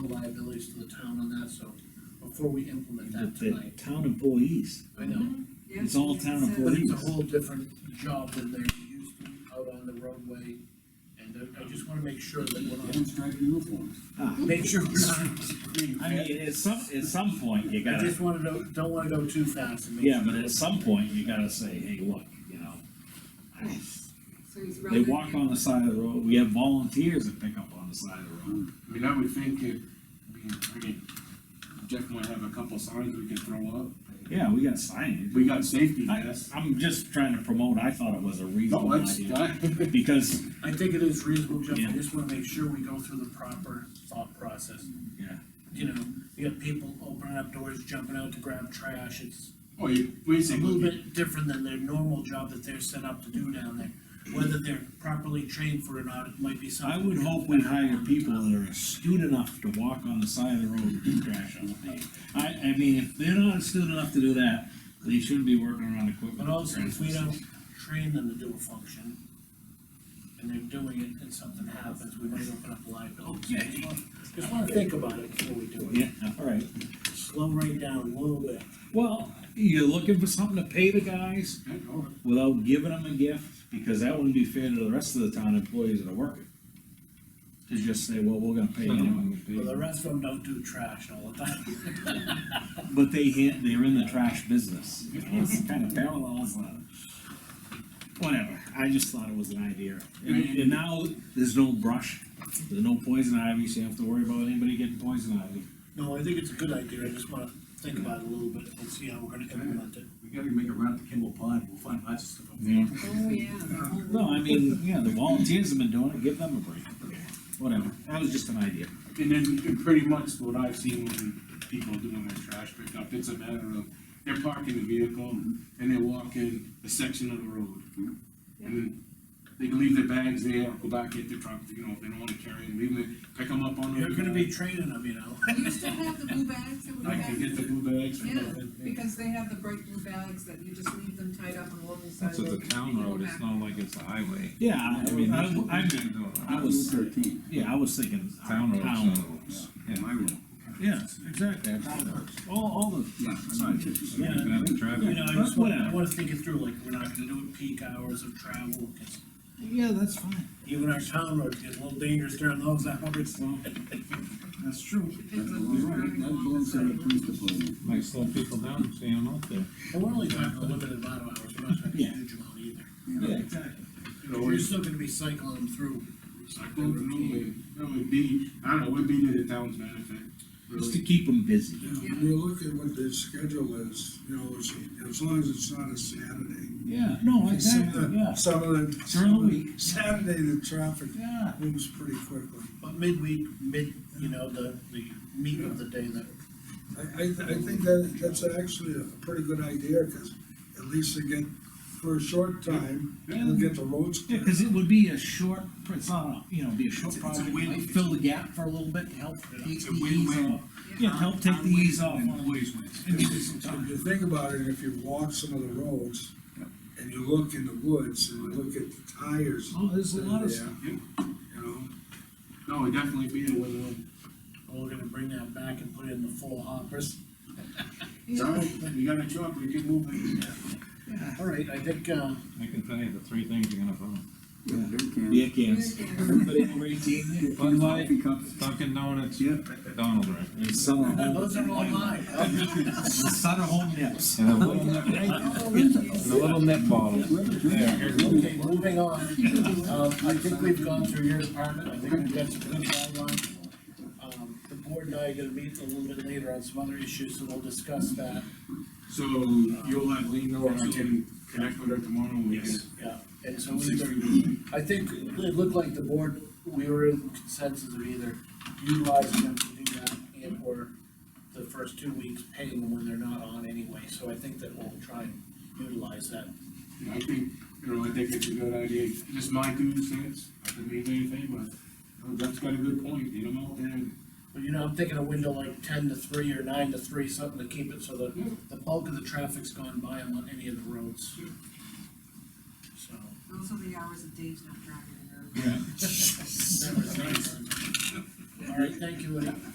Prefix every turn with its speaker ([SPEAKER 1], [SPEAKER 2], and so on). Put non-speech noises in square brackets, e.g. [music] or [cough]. [SPEAKER 1] liabilities to the town on that, so before we implement that
[SPEAKER 2] The
[SPEAKER 1] tonight,
[SPEAKER 2] town employees,
[SPEAKER 1] I know.
[SPEAKER 2] It's all town
[SPEAKER 3] Yes,
[SPEAKER 1] But
[SPEAKER 2] employees.
[SPEAKER 3] it's
[SPEAKER 1] it's a whole different job than they're used to out on the roadway, and I I just wanna make sure that we're not,
[SPEAKER 4] Everyone's driving uniforms.
[SPEAKER 2] ah,
[SPEAKER 1] make sure we're not,
[SPEAKER 2] I mean, at some, at some point, you
[SPEAKER 1] I
[SPEAKER 2] gotta,
[SPEAKER 1] just wanna go, don't wanna go too fast and make sure.
[SPEAKER 2] yeah, but at some point, you gotta say, hey, look, you know. I-
[SPEAKER 3] a- So he's
[SPEAKER 2] They
[SPEAKER 3] relevant.
[SPEAKER 2] walk on the side of the road, we have volunteers that pick up on the side of the road.
[SPEAKER 4] I mean, I would think it, I mean, Jeff might have a couple signs we could throw up.
[SPEAKER 2] Yeah, we got signage.
[SPEAKER 4] We got safety
[SPEAKER 2] I,
[SPEAKER 4] vests.
[SPEAKER 2] I'm just trying to promote, I thought it was a
[SPEAKER 4] No,
[SPEAKER 2] reasonable
[SPEAKER 4] that's,
[SPEAKER 2] idea,
[SPEAKER 4] [laughs] I,
[SPEAKER 2] because,
[SPEAKER 1] I think it is reasonable, Jeff,
[SPEAKER 2] Yeah.
[SPEAKER 1] I just wanna make sure we go through the proper thought process.
[SPEAKER 2] yeah,
[SPEAKER 1] You know, you got people opening up doors, jumping out to grab trash, it's a
[SPEAKER 4] oh, you
[SPEAKER 1] little
[SPEAKER 4] basically,
[SPEAKER 1] bit different than their normal job that they're set up to do down there. Whether they're properly trained for it or not, it might be
[SPEAKER 2] I
[SPEAKER 1] something.
[SPEAKER 2] would hope we hire people that are astute enough to walk on the side of the road and do trash on the pavement. I, I mean, if they're not astute enough to do that, they shouldn't be working around equipment.
[SPEAKER 1] But also, if we don't train them to do a function, and they're doing it and something happens, we might open up liability.
[SPEAKER 2] Okay.
[SPEAKER 1] Just wanna think about it before we do it,
[SPEAKER 2] Yeah, all right.
[SPEAKER 1] slow right down a little bit.
[SPEAKER 2] Well, you're looking for something to pay the guys
[SPEAKER 4] I know.
[SPEAKER 2] without giving them a gift, because that wouldn't be fair to the rest of the town employees that are working. To just say, well, we're gonna pay
[SPEAKER 1] Well, the
[SPEAKER 2] them.
[SPEAKER 1] rest of them don't do trash all the time. [laughs]
[SPEAKER 2] But they hit, they're in the trash business. It's kind of parallels that. Whatever, I just thought it was an idea. And, and now, there's no brush, there's no poison ivy, so you don't have to worry about anybody getting poison ivy.
[SPEAKER 1] No, I think it's a good idea, I just wanna think about it a little bit and see how we're gonna implement it.
[SPEAKER 5] We gotta make a round to Kimball Pond, we'll find lots of stuff up there.
[SPEAKER 2] Yeah.
[SPEAKER 3] Oh, yeah. the whole-
[SPEAKER 2] No, I mean, yeah, the volunteers have been doing it, give them a break. Whatever, that was just an idea.
[SPEAKER 4] And then, and pretty much what I've seen when people doing their trash pickup, it's a matter of, they're parking the vehicle, and they're walking a section of the road. And then, they can leave their bags there, go back, get their truck, you know, if they don't wanna carry them, leave them, pick them up on the.
[SPEAKER 1] You're gonna be training them, you know?
[SPEAKER 3] We used to have the blue bags that would
[SPEAKER 4] I can get the blue bags. and
[SPEAKER 3] Yeah,
[SPEAKER 4] everything.
[SPEAKER 3] because they have the bright blue bags that you just leave them tied up on the local side.
[SPEAKER 6] That's at the town road, it's not like it's a highway.
[SPEAKER 2] Yeah, I I mean, I'm, I'm, I was-
[SPEAKER 4] Thirteen.
[SPEAKER 2] yeah, I was thinking.
[SPEAKER 6] Town roads,
[SPEAKER 2] town
[SPEAKER 6] town
[SPEAKER 2] roads.
[SPEAKER 6] roads.
[SPEAKER 2] Yeah.
[SPEAKER 4] My room.
[SPEAKER 2] Yeah, exactly, town roads. all, all the,
[SPEAKER 4] Yeah,
[SPEAKER 2] Yeah,
[SPEAKER 6] You can have a traffic-
[SPEAKER 1] You know, I just wanna, I
[SPEAKER 2] Whatever.
[SPEAKER 1] wanna think it through, like, we're not gonna do it peak hours of travel, 'cause
[SPEAKER 2] yeah, that's fine.
[SPEAKER 1] even our town roads get a little dangerous during those [laughs] hours.
[SPEAKER 2] That's true.
[SPEAKER 3] Depends on who's driving along the side.
[SPEAKER 4] department.
[SPEAKER 6] Might slow people down, so you don't know if they're-
[SPEAKER 1] And we're only talking a limited amount of hours, we're not talking a
[SPEAKER 2] Yeah.
[SPEAKER 1] huge amount either.
[SPEAKER 2] Yeah, exactly.
[SPEAKER 4] You know,
[SPEAKER 1] We're
[SPEAKER 4] it's,
[SPEAKER 1] still gonna be cycling them through.
[SPEAKER 4] I don't know, it, that would be, I don't know, it would be to the town's benefit,
[SPEAKER 2] Just to
[SPEAKER 4] really.
[SPEAKER 2] keep them busy.
[SPEAKER 7] Yeah, when you look at what their schedule is, you know, as, as long as it's not a Saturday.
[SPEAKER 2] Yeah, no,
[SPEAKER 7] Some of
[SPEAKER 2] exactly,
[SPEAKER 7] the-
[SPEAKER 2] yeah,
[SPEAKER 7] Some of the.
[SPEAKER 2] During the week.
[SPEAKER 7] Saturday, the traffic
[SPEAKER 2] yeah.
[SPEAKER 7] moves pretty quickly.
[SPEAKER 1] But midweek, mid, you know, the, the meat of the day that,
[SPEAKER 7] I, I, I think that, that's actually a pretty good idea, cause at least they get, for a short time, they'll get the roads
[SPEAKER 2] Yeah,
[SPEAKER 7] clear.
[SPEAKER 2] cause it would be a short, it's not, a you know, be a short
[SPEAKER 5] It's- it's a
[SPEAKER 2] project,
[SPEAKER 5] win.
[SPEAKER 2] might fill the gap for a little bit, help take
[SPEAKER 5] It's a
[SPEAKER 2] the ease
[SPEAKER 5] win-win.
[SPEAKER 2] off. Yeah, help take the ease off.
[SPEAKER 5] And Always wins.
[SPEAKER 2] And give it some time.
[SPEAKER 7] If you think about it, if you walk some of the roads, and you look in the woods, and you look at the tires.
[SPEAKER 2] Oh, there's a
[SPEAKER 7] that are
[SPEAKER 2] lot of,
[SPEAKER 7] there,
[SPEAKER 4] Yeah.
[SPEAKER 7] You know,
[SPEAKER 4] No, it'd definitely be a win-win.
[SPEAKER 1] we're gonna bring that back and put it in the full hoppers.
[SPEAKER 4] So, you got a truck, we can move it.
[SPEAKER 1] All right, I think, uh,
[SPEAKER 6] I can tell you the three things you're gonna find.
[SPEAKER 2] beer cans.
[SPEAKER 3] Yeah.
[SPEAKER 2] Everybody over eighteen,
[SPEAKER 6] Bud Light, Dunkin' Donuts, Donald Driver.
[SPEAKER 2] and Sutter Home,
[SPEAKER 1] those are all mine.
[SPEAKER 2] Sutter Home nips.
[SPEAKER 6] And a little net, and a little net bottle. There, here's a little-
[SPEAKER 1] Okay, moving on, um, I think we've gone through your department, I think we've got some good guidelines. Um, the board and I are gonna meet a little bit later on some other issues, so we'll discuss that,
[SPEAKER 4] So you'll let Lean know, and I can connect with her tomorrow, and we can.
[SPEAKER 5] Yes.
[SPEAKER 1] yeah. And so we, I think it looked like the board, we were in consensus of either utilizing them to do that and or the first two weeks paying them when they're not on anyway, so I think that we'll try and utilize that.
[SPEAKER 4] I think, you know, I think it's a good idea, just my two cents, I could mean anything, but that's got a good point, you know, and.
[SPEAKER 1] But you know, I'm thinking a window like ten to three or nine to three, something to keep it so that the bulk of the traffic's gone by on any of the roads. So. [laughs]
[SPEAKER 3] Those are the hours of Dave's not driving.
[SPEAKER 1] that was nice. All right, thank you, Woody.